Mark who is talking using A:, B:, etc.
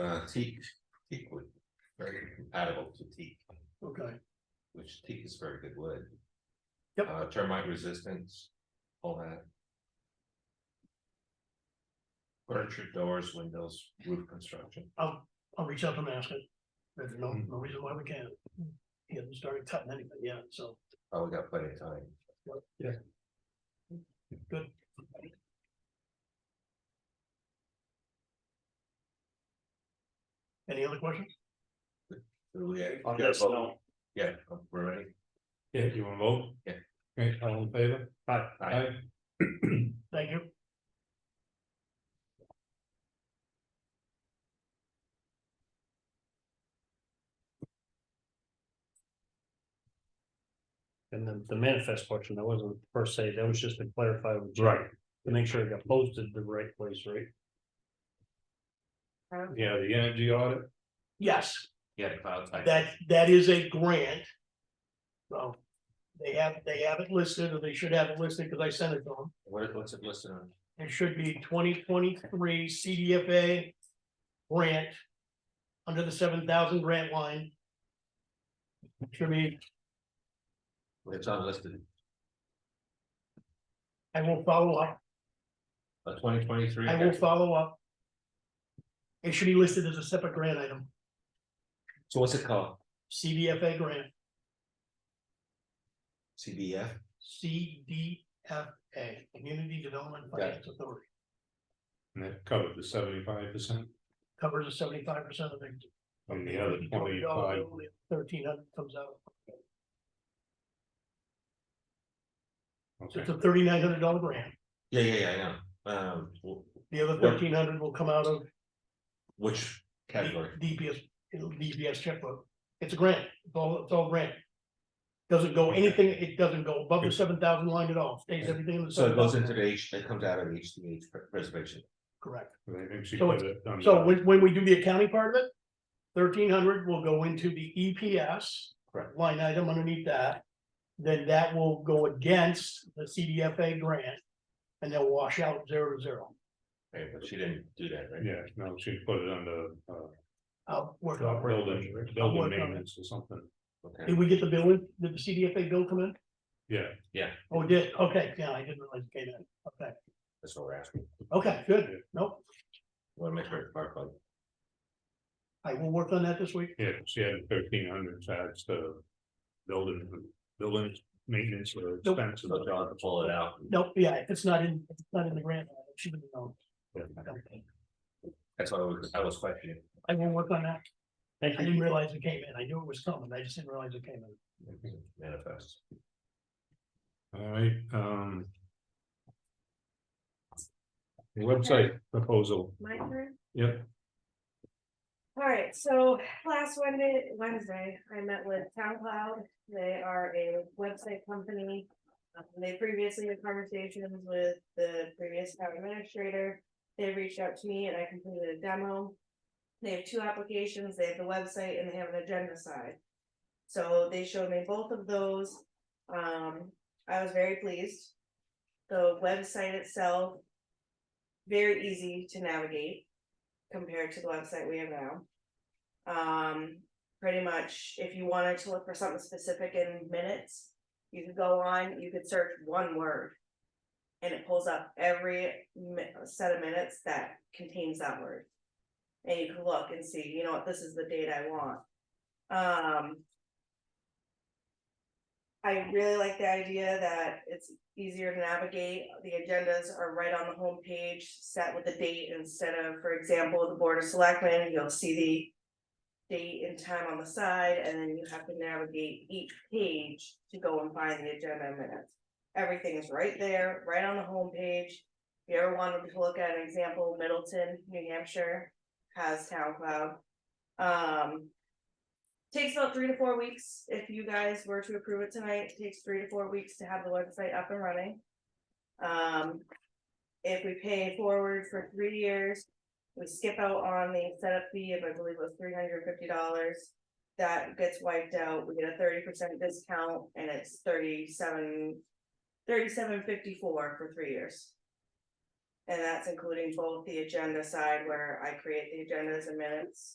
A: Uh, teak, teak wood, very compatible to teak,
B: Okay,
A: which teak is very good wood.
B: Yep.
A: Uh, termite resistance, all that. Furniture, doors, windows, roof construction.
B: I'll, I'll reach out and ask it. There's no,
A: Mhm.
B: no reason why we can't. He hasn't started cutting anything yet, so.
A: Oh, we got plenty of time.
B: Yeah. Good. Any other questions?
A: Do we-
C: On
A: yeah,
C: this,
A: vote?
C: no.
A: Yeah, oh, we're ready.
C: Yeah, do you wanna vote?
A: Yeah.
C: Great, all in favor? Aye.
A: Aye.
B: Thank you.
D: And the, the manifest question, that wasn't per se, that was just to clarify. with Jim, To make sure it got posted the right place, right?
C: Yeah, the energy audit,
B: Yes,
A: Yeah, cloud type.
B: that, that is a grant. So they have, they have it listed, or they should have it listed, because I sent it to them.
A: What, what's it listed on?
B: It should be twenty twenty-three CDFA grant. Under the seven thousand grant line. Should be,
A: It's unlisted,
B: I will follow up,
A: uh, twenty twenty-three.
B: I will follow up. It should be listed as a separate grant item,
A: So what's it called?
B: CDFA grant,
A: CBF?
B: CDFA, Community Development Finance Authority.
C: and that covered the seventy-five percent
B: Covers a seventy-five percent of the.
C: from the other twenty-five.
B: Thirteen hundred comes out, so
C: Okay,
B: it's a thirty-nine hundred dollar grant,
A: Yeah, yeah, yeah, I know. Um, wh-
B: the other
A: What-
B: thirteen hundred will come out of
A: which category?
B: DPS, it'll DPS checkbook, it's a grant, it's all, it's all grant. Doesn't go anything, it doesn't go above the seven thousand line at all, stays everything in the.
A: So it goes
B: 7,000.
A: into the H, it comes out of the HDH pre- preservation.
B: Correct,
C: I think she
B: So
C: put it on
B: so
C: the-
B: when, when we do the accounting part of it, thirteen hundred will go into the EPS.
A: Correct.
B: Line item underneath that, then that will go against the CDFA grant, and they'll wash out zero to zero.
A: Hey, but she didn't do that, right?
C: Yeah, no, she put it on the, uh,
B: I'll work on it.
C: building,
B: I'll work
C: building
B: on it.
C: maintenance or something,
A: Okay,
B: Did we get the bill, in? did the CDFA bill come in?
C: yeah.
A: yeah,
B: Oh, it did, okay, yeah, I didn't realize it came in, okay,
A: that's what we're asking.
B: okay, good, nope.
A: Wanna make sure it's clarified.
B: I will work on that this week.
C: Yeah, she had thirteen hundred, so that's the building, building maintenance or
B: Nope.
C: expenses.
A: So they'll have to pull it out.
B: Nope, yeah, if it's not in, if it's not in the grant, she would know.
A: That's what I was, I was questioning.
B: I will work on that.
D: Thank
B: I didn't realize it came in. I knew it was coming. I just didn't realize it came in.
A: Manifest.
C: Alright, um. Website proposal,
E: My turn?
C: yep.
E: All right, so last Wednesday, Wednesday, I met with Town Cloud. They are a website company. Um, They previously had conversations with the previous town administrator. They reached out to me and I completed a demo. They have two applications. They have the website and they have an agenda side. So they showed me both of those. Um, I was very pleased. The website itself. Very easy to navigate compared to the website we have now. Um, pretty much, if you wanted to look for something specific in minutes, you could go on, you could search one word. And it pulls up every mi- set of minutes that contains that word. And you can look and see, you know what, this is the date I want. Um. I really like the idea that it's easier to navigate. The agendas are right on the homepage, set with the date instead of, for example, the Board of Selectmen, you'll see the date and time on the side, and then you have to navigate each page to go and find the agenda and minutes. Everything is right there, right on the homepage. If you ever wanted to look at an example, Middleton, New Hampshire has Town Cloud. Um, Takes about three to four weeks, if you guys were to approve it tonight, it takes three to four weeks to have the website up and running. Um, if we pay forward for three years, we skip out on the setup fee of, I believe it was three hundred and fifty dollars. That gets wiped out, we get a thirty percent discount and it's thirty-seven, thirty-seven fifty-four for three years. And that's including both the agenda side where I create the agendas and minutes